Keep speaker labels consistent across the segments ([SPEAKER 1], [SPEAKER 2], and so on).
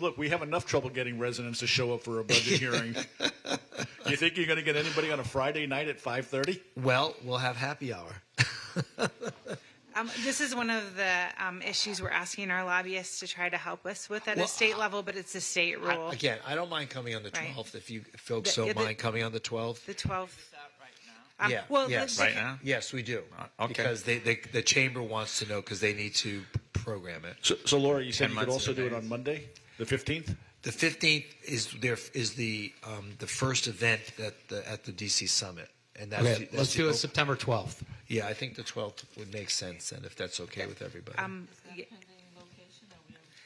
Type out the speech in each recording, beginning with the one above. [SPEAKER 1] Look, we have enough trouble getting residents to show up for a budget hearing. You think you're going to get anybody on a Friday night at 5:30?
[SPEAKER 2] Well, we'll have happy hour.
[SPEAKER 3] Um, this is one of the um, issues we're asking our lobbyists to try to help us with at
[SPEAKER 2] Well,
[SPEAKER 3] a state level, but it's a state rule.
[SPEAKER 2] I, again, I don't mind coming on the
[SPEAKER 3] Right.
[SPEAKER 2] 12th if you folks
[SPEAKER 3] The-
[SPEAKER 2] don't
[SPEAKER 3] yeah, the-
[SPEAKER 2] mind coming on the 12th.
[SPEAKER 3] the 12th. Um,
[SPEAKER 2] yeah.
[SPEAKER 3] well, the-
[SPEAKER 2] yes.
[SPEAKER 3] the-
[SPEAKER 4] Right now? Uh,
[SPEAKER 2] Yes, we do.
[SPEAKER 4] okay.
[SPEAKER 2] Because they, they, the chamber wants to know because they need to program it.
[SPEAKER 1] So, so Laura, you said
[SPEAKER 4] Ten
[SPEAKER 1] you could
[SPEAKER 4] months
[SPEAKER 1] also
[SPEAKER 4] in
[SPEAKER 1] do it
[SPEAKER 4] advance.
[SPEAKER 1] on Monday, the 15th.
[SPEAKER 2] The 15th is their is the um, the first event at the at the DC summit, and that's,
[SPEAKER 5] Okay,
[SPEAKER 2] the- that's
[SPEAKER 5] let's
[SPEAKER 2] the
[SPEAKER 5] do it
[SPEAKER 2] op-
[SPEAKER 5] September 12th.
[SPEAKER 2] Yeah, I think the 12th would make sense, then, if that's okay with everybody.
[SPEAKER 3] um, y-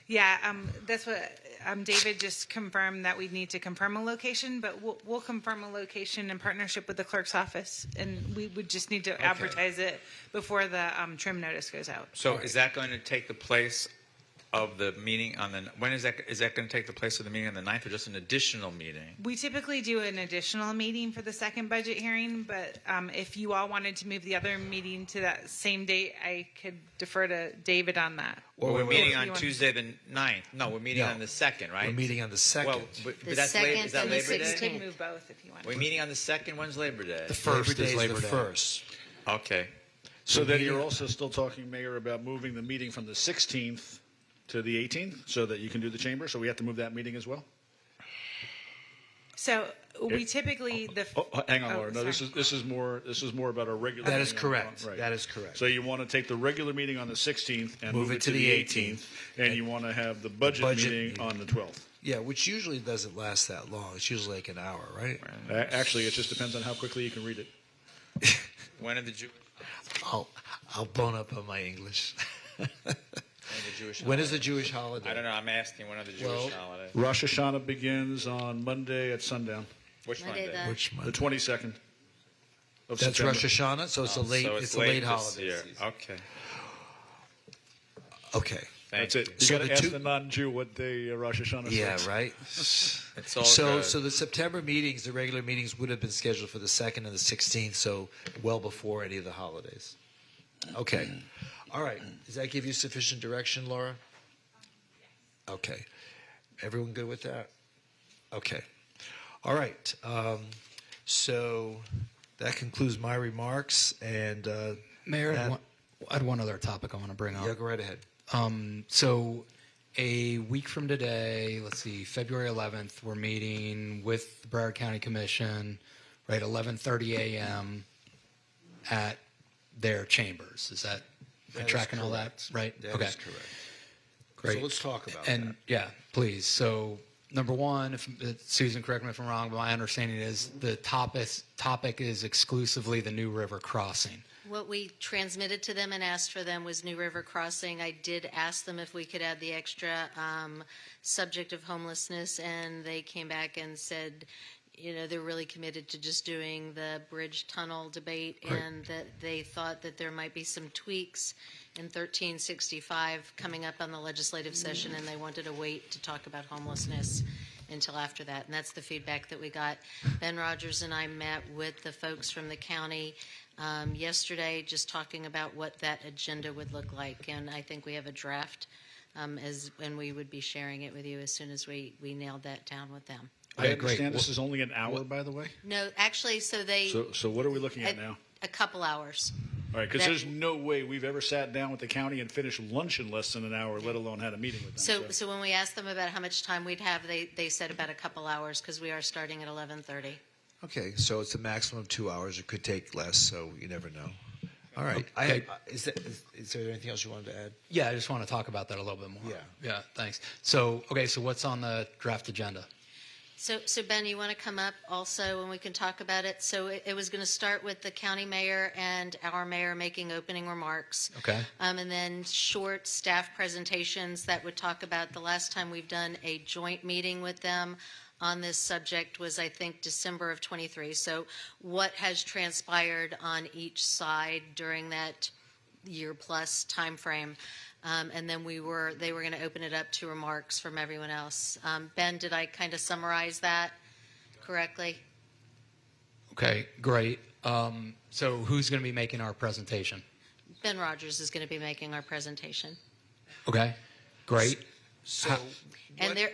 [SPEAKER 3] yeah, um, that's what um, David just confirmed that we need to confirm a location, but we'll, we'll confirm a location in partnership with the clerk's office, and we would just need to advertise it before the um, trim notice goes out.
[SPEAKER 4] So is that going to take the place of the meeting on the, when is that, is that going to take the place of the meeting on the 9th or just an additional meeting?
[SPEAKER 3] We typically do an additional meeting for the second budget hearing, but um, if you all wanted to move the other meeting to that same date, I could defer to David on that.
[SPEAKER 4] Well, we're meeting
[SPEAKER 3] wait. You
[SPEAKER 4] on
[SPEAKER 3] want-
[SPEAKER 4] Tuesday the 9th. No, we're meeting
[SPEAKER 2] No.
[SPEAKER 4] on the 2nd, right?
[SPEAKER 2] We're meeting on the 2nd.
[SPEAKER 4] Well, but, but
[SPEAKER 6] The
[SPEAKER 4] that's Labor, is
[SPEAKER 6] 2nd
[SPEAKER 4] that
[SPEAKER 6] and the
[SPEAKER 4] Labor
[SPEAKER 3] We
[SPEAKER 4] Day?
[SPEAKER 3] could
[SPEAKER 6] 16th.
[SPEAKER 3] move both if you want.
[SPEAKER 4] We're meeting on the 2nd, when's Labor Day?
[SPEAKER 5] first
[SPEAKER 2] Labor
[SPEAKER 5] is
[SPEAKER 2] Day
[SPEAKER 5] Labor
[SPEAKER 2] the
[SPEAKER 5] Day.
[SPEAKER 2] first.
[SPEAKER 4] Okay.
[SPEAKER 1] So then you're also still talking, Mayor, about moving the meeting from the 16th to the 18th, so that you can do the chamber. So we have to move that meeting as well.
[SPEAKER 3] So we typically, the,
[SPEAKER 1] Oh, oh, hang on,
[SPEAKER 3] Oh,
[SPEAKER 1] Laura. No, this
[SPEAKER 3] sorry.
[SPEAKER 1] is this is more this is more about our regular.
[SPEAKER 2] That is
[SPEAKER 1] meeting on the-
[SPEAKER 2] correct. That is correct.
[SPEAKER 1] So you want to take the regular meeting on the 16th and move, it to, the 18th, and, you want to have the budget,
[SPEAKER 2] budget
[SPEAKER 1] meeting,
[SPEAKER 2] meeting.
[SPEAKER 1] on the 12th.
[SPEAKER 2] Yeah, which usually doesn't last that long. It's usually like an hour, right?
[SPEAKER 1] A- Actually, it just depends on how quickly you can read it.
[SPEAKER 4] When are the Jew,
[SPEAKER 2] I'll I'll bone up on my English.
[SPEAKER 4] when are the Jewish
[SPEAKER 2] when is
[SPEAKER 4] holidays?
[SPEAKER 2] the Jewish holiday?
[SPEAKER 4] I don't know, I'm asking, when are the
[SPEAKER 2] Well-
[SPEAKER 4] Jewish holidays?
[SPEAKER 1] Rosh Hashanah begins on Monday at sundown,
[SPEAKER 4] Which
[SPEAKER 6] Monday
[SPEAKER 4] Monday?
[SPEAKER 6] the-
[SPEAKER 2] Which
[SPEAKER 1] the
[SPEAKER 2] month?
[SPEAKER 1] 22nd of
[SPEAKER 2] That's
[SPEAKER 1] September.
[SPEAKER 2] Rosh Hashanah, so it's a late.
[SPEAKER 4] Oh, So
[SPEAKER 2] it's, a late
[SPEAKER 4] this
[SPEAKER 2] holiday.
[SPEAKER 4] year.
[SPEAKER 2] season.
[SPEAKER 4] Okay.
[SPEAKER 2] Okay.
[SPEAKER 1] That's it.
[SPEAKER 4] Thank you.
[SPEAKER 1] You
[SPEAKER 2] So
[SPEAKER 1] got
[SPEAKER 2] the
[SPEAKER 1] to ask
[SPEAKER 2] two-
[SPEAKER 1] the non-Jew what day uh, Rosh Hashanah
[SPEAKER 2] Yeah.
[SPEAKER 1] starts.
[SPEAKER 2] Right.
[SPEAKER 4] It's all
[SPEAKER 2] So,
[SPEAKER 4] good.
[SPEAKER 2] so the September meetings, the regular meetings, would have been scheduled for the second and the sixteenth, so well before any of the holidays. Okay, all right. Does that give you sufficient direction, Laura? Okay, everyone good with that? Okay, all right. Um, so that concludes my remarks, and uh,
[SPEAKER 5] Mayor, I
[SPEAKER 2] that-
[SPEAKER 5] had, one, I had one other topic I want to bring up.
[SPEAKER 2] yeah, go right ahead.
[SPEAKER 5] Um, so, a week from today, let's see, February 11th, we're meeting with the Broward County Commission, right, 11:30 a.m. at their chambers. Is that, am I
[SPEAKER 2] That is
[SPEAKER 5] tracking all that?
[SPEAKER 2] correct.
[SPEAKER 5] Right.
[SPEAKER 2] That
[SPEAKER 5] okay.
[SPEAKER 2] is correct.
[SPEAKER 5] Great.
[SPEAKER 2] So let's talk about
[SPEAKER 5] and
[SPEAKER 2] that.
[SPEAKER 5] yeah, please. So number one, if uh, Susan, correct me if I'm wrong, but my understanding is the topic topic is exclusively the New River crossing.
[SPEAKER 6] What we transmitted to them and asked for them was New River Crossing. I did ask them if we could add the extra um, subject of homelessness, and they came back and said, you know, they're really committed to just doing the bridge tunnel debate, and that they thought that there might be some tweaks in 1365 coming up on the legislative session, and they wanted to wait to talk about homelessness until after that. And that's the feedback that we got. Ben Rogers and I met with the folks from the county um, yesterday, just talking about what that agenda would look like. And I think we have a draft, um, as, and we would be sharing it with you as soon as we, we nailed that down with them.
[SPEAKER 1] I understand this is only an hour, by the way.
[SPEAKER 6] No, actually, so they,
[SPEAKER 1] So, so what are we looking at now?
[SPEAKER 6] a couple hours.
[SPEAKER 1] All right, because
[SPEAKER 6] That-
[SPEAKER 1] there's no way we've ever sat down with the county and finished lunch in less than an hour, let alone had a meeting with them.
[SPEAKER 6] So, so when we asked them about how much time we'd have, they, they said about a couple hours, because we are starting at 11:30.
[SPEAKER 2] Okay, so it's a maximum of two hours. It could take less, so you never know. All right.
[SPEAKER 5] Okay.
[SPEAKER 2] I, is, that, is, is there anything else you wanted to add?
[SPEAKER 5] Yeah, I just want to talk about that a little bit more.
[SPEAKER 2] Yeah.
[SPEAKER 5] Yeah. Thanks. So okay, so what's on the draft agenda?
[SPEAKER 6] So, so Ben, you want to come up also and we can talk about it? So it, it was going to start with the county mayor and our mayor making opening remarks.
[SPEAKER 5] Okay.
[SPEAKER 6] Um, and then short staff presentations that would talk about the last time we've done a joint meeting with them on this subject was, I think, December of 23. So what has transpired on each side during that year plus timeframe? Um, and then we were, they were going to open it up to remarks from everyone else. Um, ben, did I kind of summarize that correctly?
[SPEAKER 5] Okay. Great. Um, so who's going to be making our presentation?
[SPEAKER 6] Ben Rogers is going to be making our presentation.
[SPEAKER 5] Okay. Great.
[SPEAKER 2] So,
[SPEAKER 6] And
[SPEAKER 2] What-
[SPEAKER 6] there,